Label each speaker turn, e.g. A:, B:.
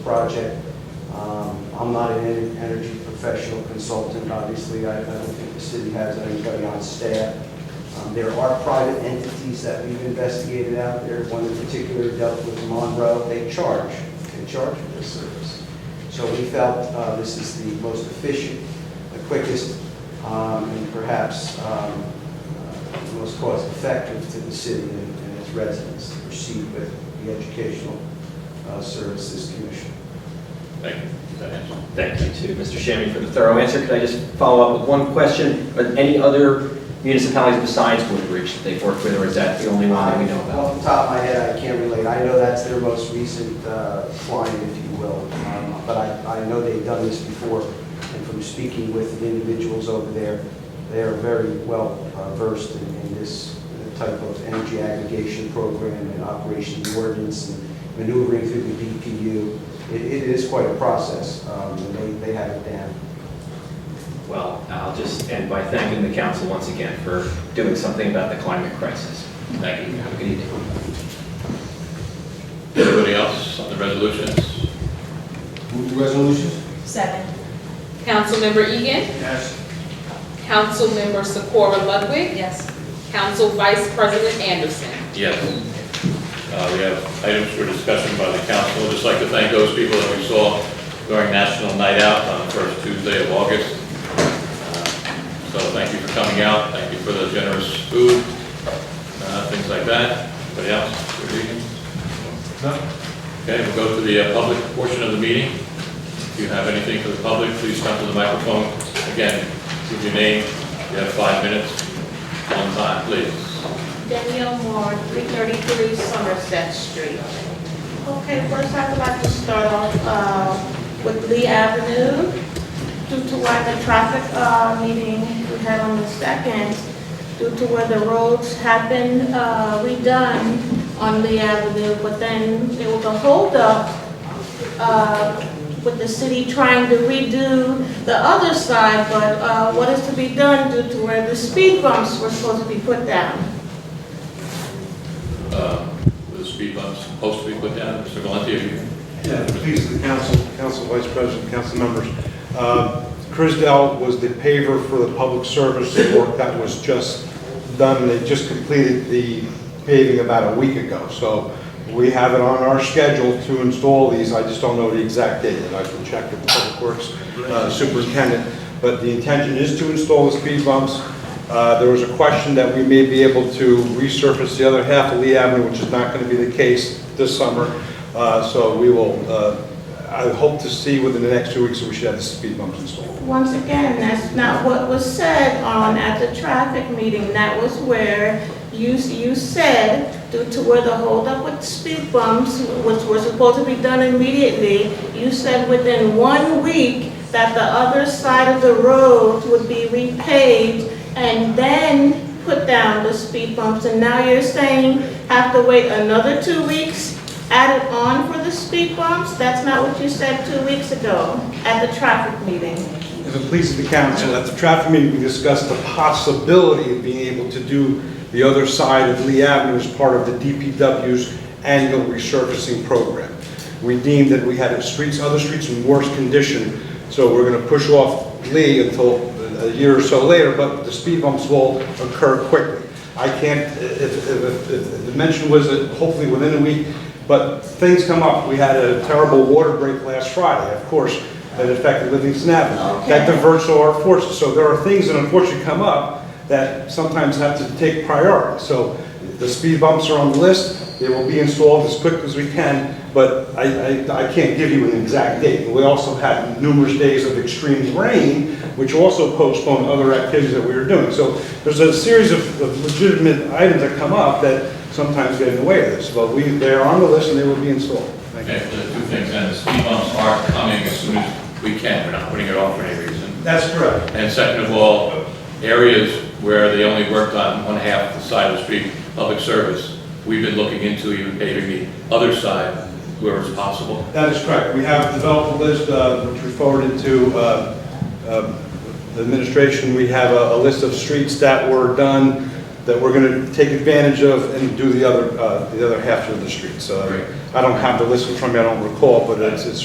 A: project. Um, I'm not an en- energy professional consultant, obviously, I I don't think the city has anybody on staff. Um, There are private entities that we've investigated out there, one in particular dealt with Monroe, they charge, they charge for this service. So we felt uh, this is the most efficient, the quickest, um, and perhaps um, uh, the most cost-effective to the city and and its residents to proceed with the Educational uh, Services Commission.
B: Thank you. Does that answer?
C: Thank you to Mr. Shammy for the thorough answer. Could I just follow up with one question? Are there any other municipalities besides Woodbridge that they've worked with, or is that the only one that we know about?
A: Off the top of my head, I can't relate. I know that's their most recent uh, client, if you will. Um, But I, I know they've done this before, and from speaking with the individuals over there, they are very well uh, versed in, in this type of energy aggregation program and operation of the ordinance and maneuvering through the DPU. It, it is quite a process, um, and they, they have it down.
C: Well, I'll just end by thanking the council once again for doing something about the climate crisis. Thank you. Have a good evening.
B: Anybody else on the resolutions?
D: Move the resolutions?
E: Second.
F: Councilmember Egan.
D: Yes.
F: Councilmember Socorro Ludwig.
E: Yes.
F: Council Vice President Anderson.
B: Yes. Uh, We have items for discussion by the council. I'd Just like to thank those people that we saw during National Night Out on the first Tuesday of August. Uh, So thank you for coming out, thank you for the generous food, uh, things like that. Anybody else? Mr. Egan? Okay, we'll go to the uh, public portion of the meeting. If you have anything for the public, please come to the microphone. Again, give your name, you have five minutes, on time, please.
G: Danielle Moore, 333 Somerset Street. Okay, first I'd like to start off uh, with Lee Avenue. Due to what the traffic uh, meeting we had on the 2nd, due to where the roads have been uh, redone on Lee Avenue, but then there was a holdup uh, with the city trying to redo the other side, but uh, what is to be done due to where the speed bumps were supposed to be put down?
B: uh, with the speed bumps supposed to be put down. Mr. Valenti, are you?
H: Yeah, please, the council, council vice president, council members. Uh, Crisdell was the paver for the public service work that was just done. They just completed the paving about a week ago. So we have it on our schedule to install these. I just don't know the exact date, and I can check with Public Works uh, Superintendent. But the intention is to install the speed bumps. Uh, There was a question that we may be able to resurface the other half of Lee Avenue, which is not going to be the case this summer. Uh, So we will, uh, I hope to see within the next two weeks, that we should have the speed bumps installed.
G: Once again, that's not what was said on at the traffic meeting. That was where you, you said, due to where the holdup with speed bumps, which were supposed to be done immediately, you said within one week that the other side of the road would be repaved and then put down the speed bumps. And now you're saying have to wait another two weeks added on for the speed bumps? That's not what you said two weeks ago at the traffic meeting.
H: If it pleases the council, at the traffic meeting, we discussed the possibility of being able to do the other side of Lee Avenue as part of the DPW's annual resurfacing program. We deemed that we had streets, other streets in worse condition, so we're going to push off Lee until a year or so later, but the speed bumps will occur quickly. I can't, if, if- if, if, the mention was that hopefully within a week, but things come up. We had a terrible water break last Friday, of course, that affected Livingston Avenue. That
G: Okay.
H: diverts all our forces. So there are things that unfortunately come up that sometimes have to take priority. So the speed bumps are on the list, they will be installed as quick as we can, but I, I, I can't give you an exact date. We also had numerous days of extreme rain, which also postponed other activities that we were doing. So there's a series of of legitimate items that come up that sometimes get in the way of this, but we, they are on the list and they will be installed. Thank you.
B: Okay, so the uh, two things, and the speed bumps are coming as soon as we can, we're not putting it off for any reason.
H: That's correct.
B: And second of all, areas where they only worked on one half of the side of the street, public service, we've been looking into even paving the other side where it's possible.
H: That is correct. We have developed a list, uh, which we forwarded to uh, um, the administration. We have a a list of streets that were done, that we're going to take advantage of and do the other, uh, the other half of the streets. So
B: Great.
H: I don't have the list in front of me, I don't recall, but it's it's